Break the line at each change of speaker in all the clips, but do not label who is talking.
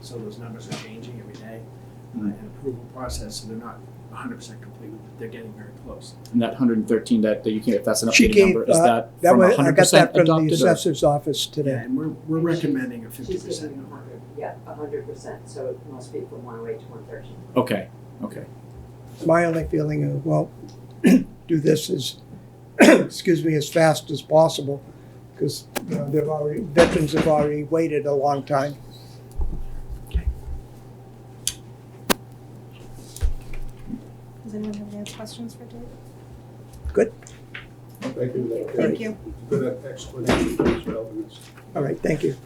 so those numbers are changing every day. uh,
Mm.
And approval process, so they're not hundred percent complete, but they're getting very close.
And that hundred and thirteen that, that you can, if that's an
She
updated
gave,
number, is
uh,
that
That
from
was, I
hundred
got that
percent adopted?
from the
or-
assessor's office
Yeah,
today.
and we're, we're recommending a fifty
She's
percent
giving a
number.
hundred, yeah, a hundred percent, so it must be from one oh eight to one thirteen.
Okay, okay.
My only feeling of, well, do this as, excuse me, as fast as possible, because, you know, they've already, veterans have already waited a long time.
Does anyone have any other questions for Dave?
Thank you.
Thank you.
Good explanation, thanks for helping us.
All right, thank you.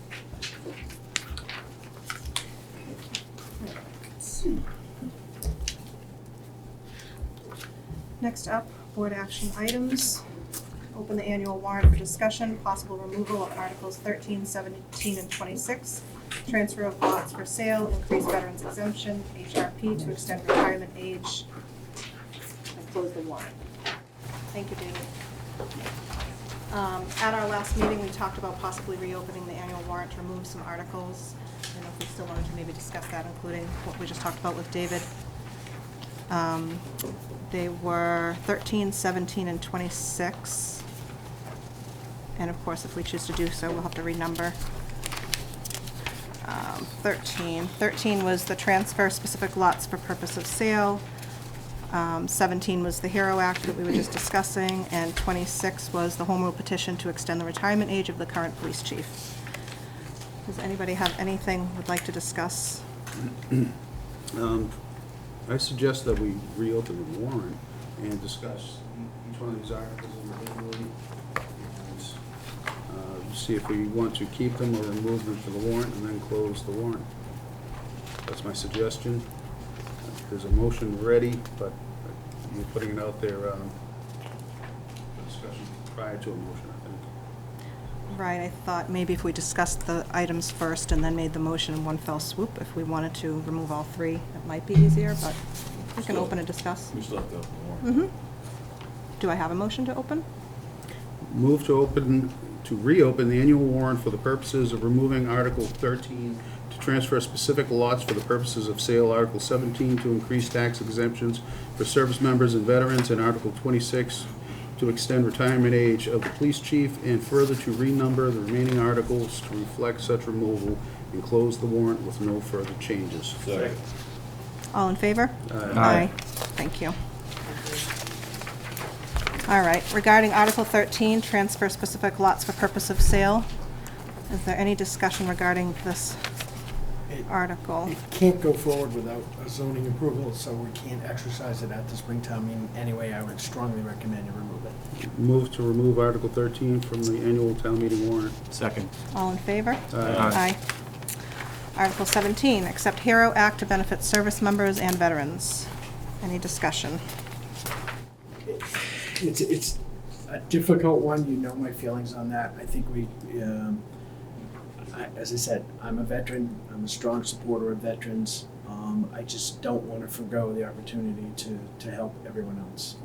Next up, board action items. Open the annual warrant for discussion, possible removal of Articles 13, 17, and 26, transfer of lots for sale, increase veterans exemption, HRP to extend retirement age, and close the warrant. Thank you, David. Um, At our last meeting, we talked about possibly reopening the annual warrant to remove some articles. I don't know if we still wanted to maybe discuss that, including what we just talked about with David. Um, They were 13, 17, and 26. And of course, if we choose to do so, we'll have to renumber. Um, 13, 13 was the transfer specific lots for purpose of sale. Um, 17 was the HERO Act that we were just discussing, and 26 was the home rule petition to extend the retirement age of the current police chief. Does anybody have anything would like to discuss?
Um, I suggest that we reopen the warrant and discuss each one of these articles individually. and uh, See if we want to keep them or remove them from the warrant and then close the warrant. That's my suggestion. There's a motion ready, but you're putting it out there um, for discussion prior to a motion, I think.
Right, I thought maybe if we discussed the items first and then made the motion in one fell swoop, if we wanted to remove all three, it might be easier, but we can open and discuss.
We still have to open the warrant.
Mhm. Do I have a motion to open?
Move to open, to reopen the annual warrant for the purposes of removing Article 13, to transfer specific lots for the purposes of sale, Article 17, to increase tax exemptions for service members and veterans, and Article 26, to extend retirement age of the police chief, and further to renumber the remaining articles to reflect such removal, and close the warrant with no further changes.
Second.
All in favor?
Aye.
Thank you. All right, regarding Article 13, transfer specific lots for purpose of sale, is there any discussion regarding this
It-
article?
It can't go forward without a zoning approval, so we can't exercise it at the springtime meeting anyway. I would strongly recommend you remove it.
Move to remove Article 13 from the annual town meeting warrant. Uh,
Second.
All in favor?
Aye.
Aye. Article 17, accept HERO Act to benefit service members and veterans. Any discussion?
It's, it's a difficult one, you know my feelings on that. I think we, um, I, as I said, I'm a veteran, I'm a strong supporter of veterans. Um, I just don't wanna forego the opportunity to, to help everyone else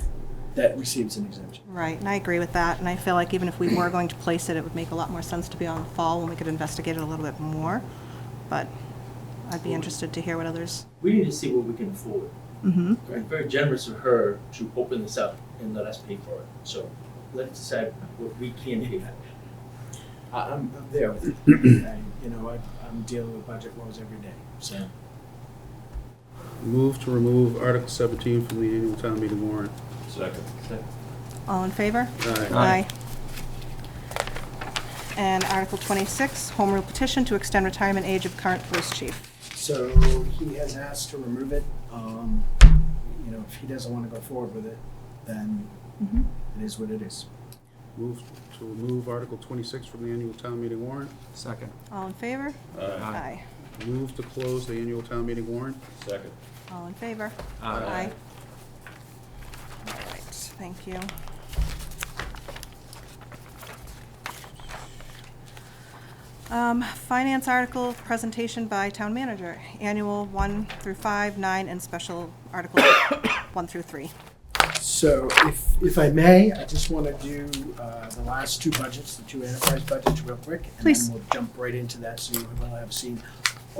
that receives an exemption.
Right, and I agree with that, and I feel like even if we were going to place it, it would make a lot more sense to be on the fall when we could investigate it a little bit more, but I'd be interested to hear what others.
we need to see what we can afford.
Mm-hmm.
It's Very generous of her to open this up and let us pay for it. So let's decide what we can pay for.
I, I'm, I'm there with it. I, you know, I, I'm dealing with budget woes every day, so.
Move to remove Article 17 from the annual town meeting warrant.
Second.
All in favor?
Aye.
And Article 26, home rule petition to extend retirement age of current police chief.
So he has asked to remove it. Um, you know, if he doesn't want to go forward with it, then
Mhm.
it is what it is.
Move to remove Article 26 from the annual town meeting warrant.
Second.
All in favor?
Aye.
Aye.
Move to close the annual town meeting warrant.
Second.
All in favor?
Aye.
All right, thank you. Um, Finance article presentation by town manager, annual one through five, nine, and special article one through three.
So if, if I may, I just want to do uh, the last two budgets, the two enterprise budgets real quick.
Please.
And then we'll jump right into that, so you will have seen